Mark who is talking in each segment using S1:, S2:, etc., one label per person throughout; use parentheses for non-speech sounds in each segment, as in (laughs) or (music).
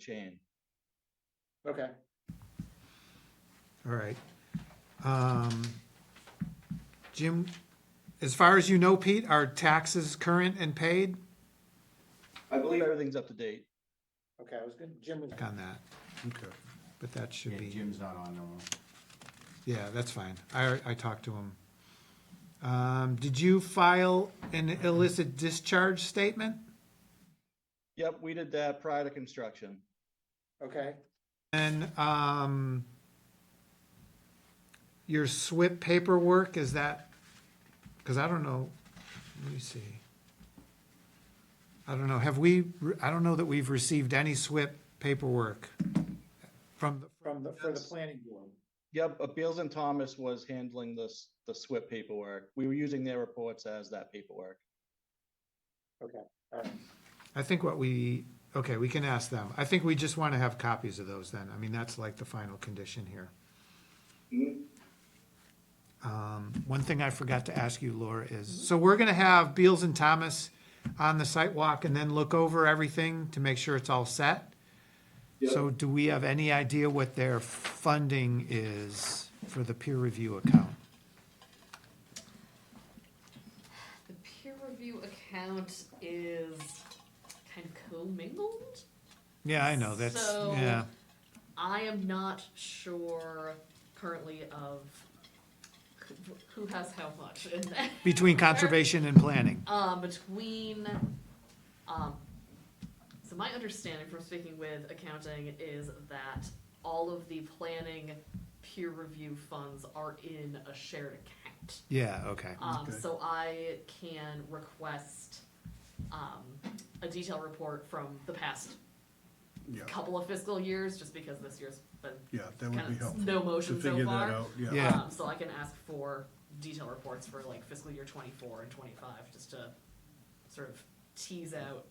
S1: chain.
S2: Okay,
S3: All right. Um, Jim, as far as you know, Pete, are taxes current and paid
S1: I believe everything's up to date.
S2: okay, I was gonna, Jim was,
S3: on that?
S4: Okay.
S3: But that should
S4: Yeah,
S3: be,
S4: Jim's not on, no.
S3: yeah, that's fine. I, I talked to him. Um, did you file an illicit discharge statement?
S1: Yep, we did that prior to construction.
S2: okay,
S3: And, um, your SWIP paperwork, is that, because I don't know, let me see. I don't know, have we, I don't know that we've received any SWIP paperwork from, the-
S2: from the, for the planning board.
S1: Yep, uh, Beals and Thomas was handling this, the SWIP paperwork. We were using their reports as that paperwork.
S2: All right.
S3: I think what we, okay, we can ask them. I think we just want to have copies of those then. I mean, that's like the final condition here. Um, One thing I forgot to ask you, Laura, is, so we're gonna have Beals and Thomas on the site walk and then look over everything to make sure it's all set? So do we have any idea what their funding is for the peer review account?
S5: The peer review account is kind of commingled.
S3: Yeah, I know, that's,
S5: So-
S3: yeah,
S5: I am not sure currently of who- who has how much in that.
S3: between conservation and planning.
S5: Um, between, um, so my understanding from speaking with accounting is that all of the planning peer review funds are in a shared account.
S3: Yeah, okay,
S5: Um,
S4: Okay.
S5: so I can request, um, a detailed report from the past
S4: Yeah,
S5: couple of fiscal years, just because this year's been
S4: yeah, that would be
S5: kind of
S4: helpful.
S5: no
S4: To
S5: motion so
S4: figure that
S5: far.
S4: out, yeah.
S3: Yeah.
S5: Um, so I can ask for detailed reports for like fiscal year twenty-four and twenty-five, just to sort of tease out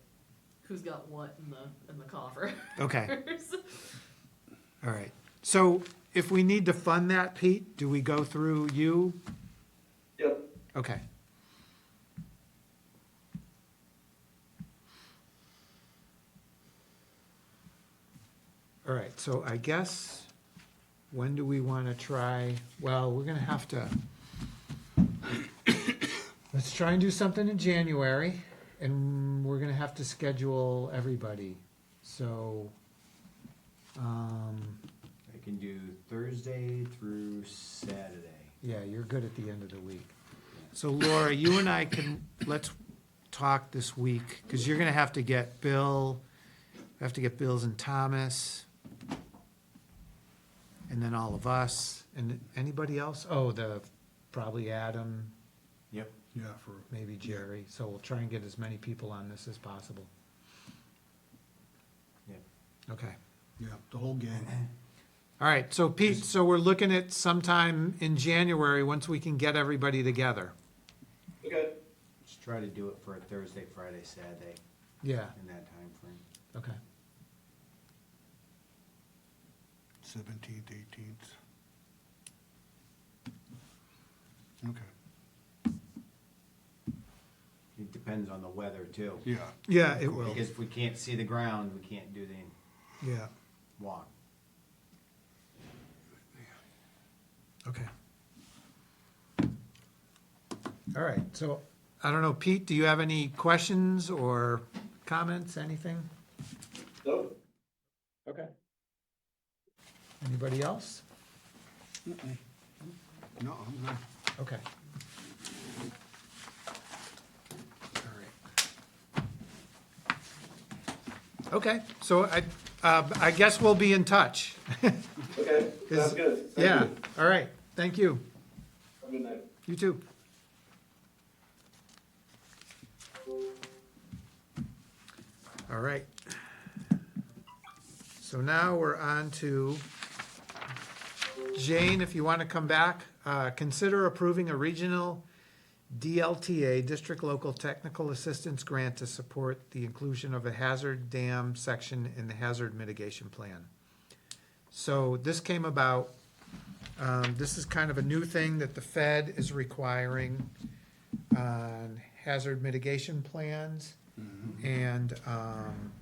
S5: who's got what in the, in the coffers.
S3: okay.
S5: (laughs)
S3: All right, so if we need to fund that, Pete, do we go through you?
S1: Yep.
S3: Okay. All right, so I guess, when do we want to try, well, we're gonna have to, let's try and do something in January, and we're gonna have to schedule everybody, so, um,
S6: I can do Thursday through Saturday.
S3: Yeah, you're good at the end of the week. So Laura, you and I can, let's talk this week, because you're gonna have to get Bill, have to get Bills and Thomas, and then all of us, and anybody else? Oh, the, probably Adam,
S6: Yep.
S4: Yeah, for,
S3: maybe Jerry, so we'll try and get as many people on this as possible.
S6: Yeah.
S3: Okay,
S4: yeah, the whole gang.
S6: Mm-hmm.
S3: all right, so Pete, so we're looking at sometime in January, once we can get everybody together.
S1: Okay.
S6: Just try to do it for a Thursday, Friday, Saturday
S3: Yeah,
S6: in that time frame.
S3: okay.
S4: Seventeenth, eighteenth. Okay,
S6: It depends on the weather too.
S4: yeah,
S3: Yeah, it will.
S6: Because if we can't see the ground, we can't do the
S4: yeah.
S6: walk.
S3: Okay. All right, so, I don't know, Pete, do you have any questions or comments, anything?
S1: Nope.
S2: Okay,
S3: Anybody else?
S4: No, I'm good.
S3: Okay. All right. Okay, so I, uh, I guess we'll be in touch.
S1: Okay,
S3: sounds
S1: good.
S3: Yeah, all right, thank you.
S1: Good night.
S3: You too. All right. So now we're on to, Jane, if you want to come back, uh, consider approving a regional DLTA, District Local Technical Assistance Grant to support the inclusion of a hazard dam section in the hazard mitigation plan. So this came about um, This is kind of a new thing that the Fed is requiring on hazard mitigation plans. And um,